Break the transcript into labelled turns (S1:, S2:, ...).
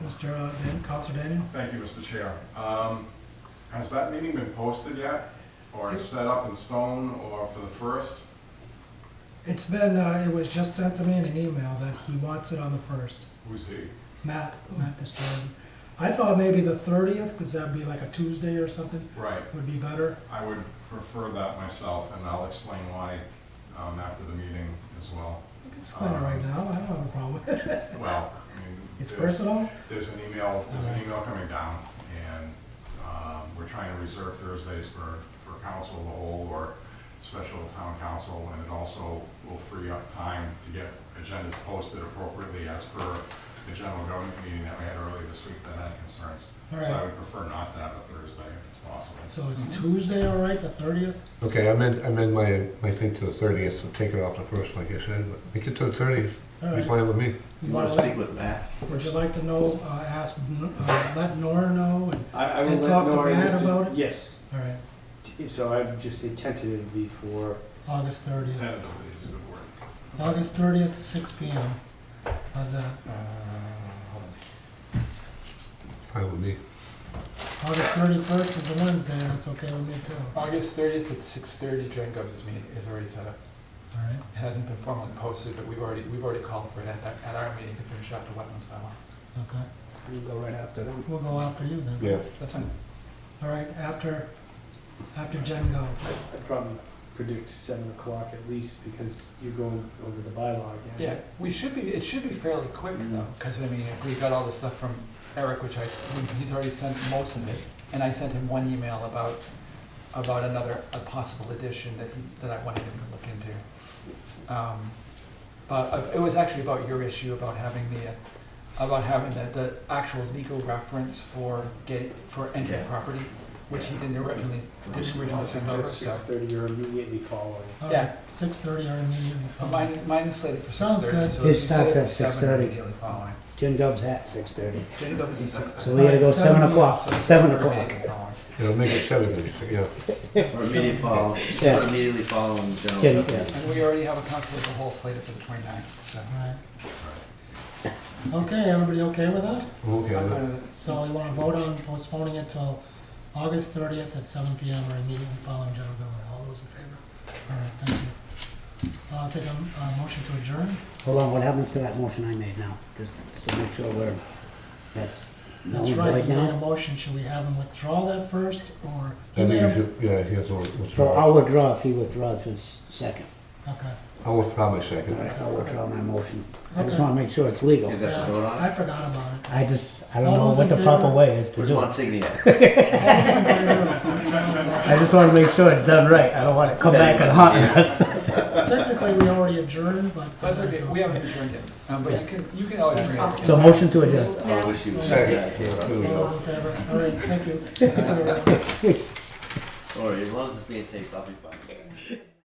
S1: Mr. uh, Dan, Counselor Daniel?
S2: Thank you, Mr. Chair. Um, Has that meeting been posted yet, or is set up in stone, or for the first?
S1: It's been, uh, it was just sent to me in an email that he wants it on the first.
S2: Who's he?
S1: Matt, Matt Disjordan. I thought maybe the thirtieth, because that'd be like a Tuesday or something,
S2: Right,
S1: would be better.
S2: I would prefer that myself, and I'll explain why um, after the meeting as well.
S1: We can split it
S3: Uh-huh.
S1: right now, I don't have a problem with it.
S2: Well, I mean.
S1: It's
S2: there's-
S1: personal?
S2: There's an email, there's an email coming down, and um, we're trying to reserve Thursdays for, for council of the whole or special town council, and it also will free up time to get agendas posted appropriately as per the general government meeting that we had earlier this week that had concerns.
S1: All
S2: So
S1: right.
S2: I would prefer not to have a Thursday if it's possible.
S1: So it's
S3: Mm-hmm.
S1: Tuesday, all right, the thirtieth?
S4: Okay, I meant, I meant my, my thing to the thirtieth, so take it off the first, like I said, but make it to the thirtieth,
S1: All
S4: be
S1: right.
S4: fine with me.
S1: You
S3: You want
S1: wanna
S3: to
S1: let-
S3: speak with Matt?
S1: Would you like to know, uh, ask, uh, let Nora know? and-
S5: I, I will
S1: And
S5: let
S1: talk to
S5: Nora
S1: Matt
S5: just-
S1: about it?
S5: Yes,
S1: All right,
S5: T- so I would just say tentatively for,
S1: August thirtieth.
S2: Tentatively is a good word.
S1: August thirtieth, six P M. How's that?
S5: uh,
S4: Fine with me.
S1: August thirty-first is a Wednesday, and that's okay with me too. All
S6: August thirtieth at six thirty, Jen Gov's meeting is already set up.
S1: right.
S6: It hasn't been formally posted, but we've already, we've already called for it at, that- at our meeting to finish out the wetlands bylaw.
S1: Okay,
S3: You go right after them.
S1: we'll go after you then.
S6: That's fine.
S1: All right, after, after Jen go.
S5: I- I'd probably predict seven o'clock at least because you're going over the bylaw again.
S6: Yeah, we should be, it should be fairly quick though, because I mean, if we got all the stuff from Eric, which I, he's already sent most of it, and I sent him one email about, about another, a possible addition that, he- that I wanted him to look into. Um, But uh, it was actually about your issue about having the, uh, about having the, the actual legal reference for gate, for entering
S3: Yeah.
S6: property, which he didn't originally, didn't originally send over, so.
S5: six thirty or immediately following.
S6: Yeah.
S1: Six thirty or immediately
S6: Uh,
S1: following.
S6: Mine, mine is slated for six
S1: Sounds
S6: thirty,
S1: good.
S6: so. if
S3: It
S6: you set
S3: starts
S6: it
S3: at
S6: for seven,
S3: 6:30.
S6: Immediately following.
S3: Jim Dub's at six thirty,
S6: Jenny Dubs is six
S3: so we gotta go
S1: Alright,
S3: seven
S1: seven
S3: o'clock,
S6: o'clock.
S3: seven o'clock.
S4: Yeah, make it seven, then, yeah.
S7: Or immediately follow,
S3: Yeah.
S7: or immediately follow in general.
S3: Get it, yeah.
S6: And we already have a council of the whole slated for the 29th, so.
S1: All right. Okay, everybody okay with that?
S4: Okay,
S6: I'll go to
S4: I'll-
S6: the-
S1: So you wanna vote on postponing it till August thirtieth at seven P M or immediately following general government. All those in favor? All right, thank you. I'll take a, a motion to adjourn.
S3: Hold on, what happens to that motion I made now? Just to make sure we're, that's, no,
S1: That's right,
S3: right
S1: you made a
S3: now?
S1: motion. Should we have him withdraw that first or?
S4: I think
S1: You
S4: you
S1: made a-
S4: should, yeah, he has to
S3: So
S4: withdraw.
S3: I'll withdraw if he withdraws his second.
S1: Okay.
S4: I'll withdraw my
S3: All
S4: second.
S3: right, I'll withdraw my motion. I just
S1: Okay.
S3: wanna make sure it's legal.
S7: Is that
S1: Yeah,
S7: the vote on
S1: I
S7: it?
S1: forgot about it.
S3: I just, I don't
S1: All
S3: know
S1: those in
S3: what the proper
S1: favor?
S3: way is to
S7: Where's
S3: do it.
S7: Montigny at?
S1: All those in favor of withdrawing the
S3: I
S1: motion?
S3: just wanna make sure it's done right. I don't wanna come back and haunt us.
S1: Technically, we already adjourned, but. uh,
S6: That's okay, we haven't adjourned yet, um, but you can, you can always bring it.
S3: So motion to adjourn.
S7: I wish he was
S4: Second.
S7: here.
S4: There we
S1: All those
S4: go.
S1: in favor? All right, thank you. Thank you. everyone.
S7: Or as long as it's being taped, I'll be fine.